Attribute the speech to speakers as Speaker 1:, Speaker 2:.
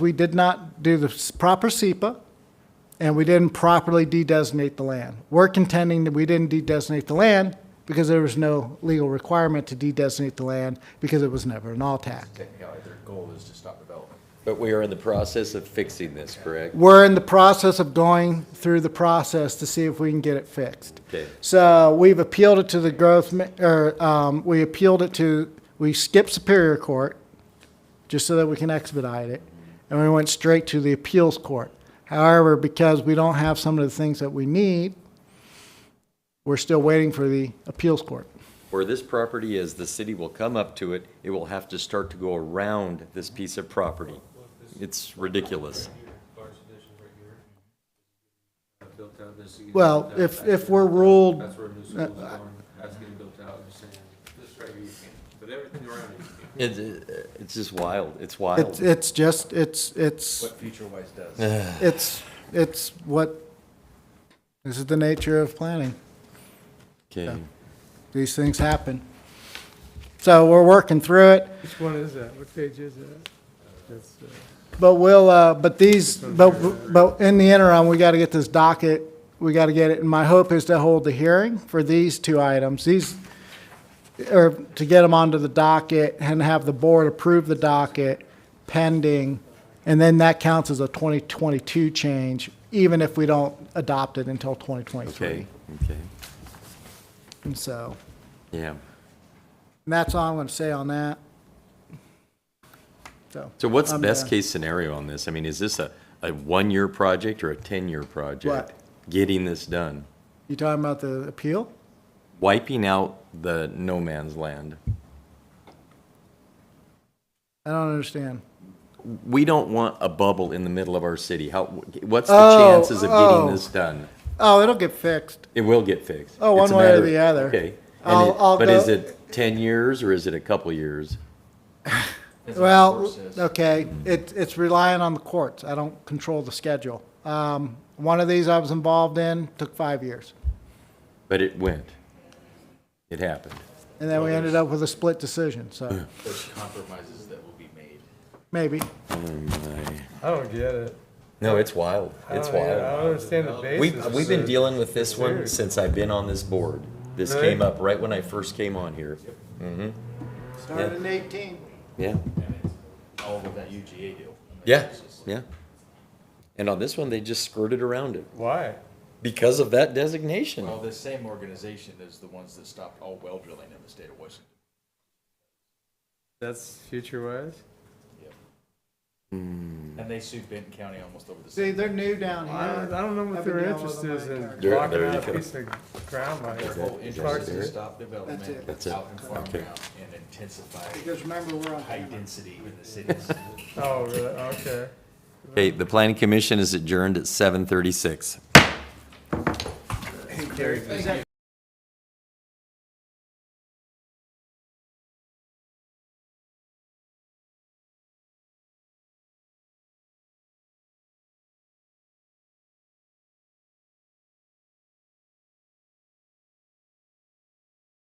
Speaker 1: we did not do the s- proper SEPA, and we didn't properly de-designate the land. We're contending that we didn't de-designate the land because there was no legal requirement to de-designate the land because it was never an all-tac.
Speaker 2: Technically, their goal is to stop development.
Speaker 3: But we are in the process of fixing this, correct?
Speaker 1: We're in the process of going through the process to see if we can get it fixed.
Speaker 3: Okay.
Speaker 1: So we've appealed it to the growth, mi- or um, we appealed it to, we skipped Superior Court just so that we can expedite it, and we went straight to the appeals court. However, because we don't have some of the things that we need, we're still waiting for the appeals court.
Speaker 3: Where this property is, the city will come up to it, it will have to start to go around this piece of property. It's ridiculous.
Speaker 4: built out, this is getting
Speaker 1: Well,
Speaker 4: built out,
Speaker 1: if,
Speaker 4: that's
Speaker 1: if
Speaker 4: getting
Speaker 1: we're
Speaker 4: built out,
Speaker 1: ruled,
Speaker 4: That's where new schools are going, that's getting built out, I'm saying, this right here you can, but everything around it you can.
Speaker 3: It, it- it's just wild, it's
Speaker 1: it's,
Speaker 3: wild.
Speaker 1: it's just, it's, it's.
Speaker 2: What future-wise does.
Speaker 1: It's, it's what, this is the nature of planning.
Speaker 3: Okay,
Speaker 1: These things happen. So we're working through it,
Speaker 5: Which one is that? What page is that? That's, uh,
Speaker 1: but we'll, uh, but these, but, but in the interim, we got to get this docket, we got to get it, and my hope is to hold the hearing for these two items. These, or to get them onto the docket and have the board approve the docket pending, and then that counts as a 2022 change, even if we don't adopt it until 2023.
Speaker 3: okay, okay,
Speaker 1: And so,
Speaker 3: yeah.
Speaker 1: and that's all I'm going to say on that. So,
Speaker 3: So what's the
Speaker 1: I'm
Speaker 3: best
Speaker 1: done.
Speaker 3: case scenario on this? I mean, is this a, a one-year project or a 10-year project? Getting this done,
Speaker 1: you talking about the appeal?
Speaker 3: wiping out the no man's land.
Speaker 1: I don't understand.
Speaker 3: We don't want a bubble in the middle of our city. How, what's the
Speaker 1: Oh,
Speaker 3: chances of
Speaker 1: oh.
Speaker 3: getting this done?
Speaker 1: Oh, it'll get fixed.
Speaker 3: It will get fixed.
Speaker 1: Oh, one
Speaker 3: It's a
Speaker 1: way or
Speaker 3: matter-
Speaker 1: the other.
Speaker 3: Okay. And
Speaker 1: I'll-
Speaker 3: it-
Speaker 1: I'll
Speaker 3: But
Speaker 1: go-
Speaker 3: is it 10 years or is it a couple years?
Speaker 1: Well, okay,
Speaker 3: Mm-hmm.
Speaker 1: it, it's relying on the courts. I don't control the schedule. Um, one of these I was involved in took five years,
Speaker 3: But it went. It happened.
Speaker 1: and then we ended up with a split decision, so
Speaker 2: There's compromises that will be made.
Speaker 1: maybe.
Speaker 5: I don't get
Speaker 3: Oh,
Speaker 5: it.
Speaker 3: No, it's wild. It's
Speaker 5: I don't- I
Speaker 3: wild.
Speaker 5: don't understand the basis.
Speaker 3: We've, we've been
Speaker 5: of-
Speaker 3: dealing with this one since I've been on this board. This
Speaker 5: Really?
Speaker 3: came up right when I first came on here.
Speaker 1: Started in 18.
Speaker 3: Yeah,
Speaker 2: And it's all with that UGA deal.
Speaker 3: yeah, yeah. And on this one, they just skirted around it
Speaker 5: Why?
Speaker 3: because of that designation.
Speaker 2: Well, this same organization is the ones that stopped all well drilling in the state of Washington.
Speaker 5: That's future wise?
Speaker 3: Hmm.
Speaker 2: And they sued Benton County almost over the
Speaker 1: See,
Speaker 2: same.
Speaker 1: they're new down
Speaker 5: I don't,
Speaker 1: here.
Speaker 5: I don't know
Speaker 1: I've
Speaker 5: what
Speaker 1: been
Speaker 5: their
Speaker 1: dealing with
Speaker 5: interest
Speaker 1: them my
Speaker 5: is in
Speaker 1: entire
Speaker 3: There-
Speaker 5: blocking
Speaker 3: there you
Speaker 5: out
Speaker 3: go.
Speaker 5: a piece of ground like
Speaker 2: Their
Speaker 5: that.
Speaker 2: whole interest is to stop
Speaker 1: That's it.
Speaker 2: development
Speaker 3: That's it.
Speaker 2: out in farm
Speaker 3: Okay.
Speaker 2: ground and intensify
Speaker 1: Because remember, we're on
Speaker 2: high
Speaker 1: camera.
Speaker 2: density in the cities.
Speaker 5: Oh, really? Okay.
Speaker 3: Okay, the planning commission is adjourned at 7:36.
Speaker 1: Exactly.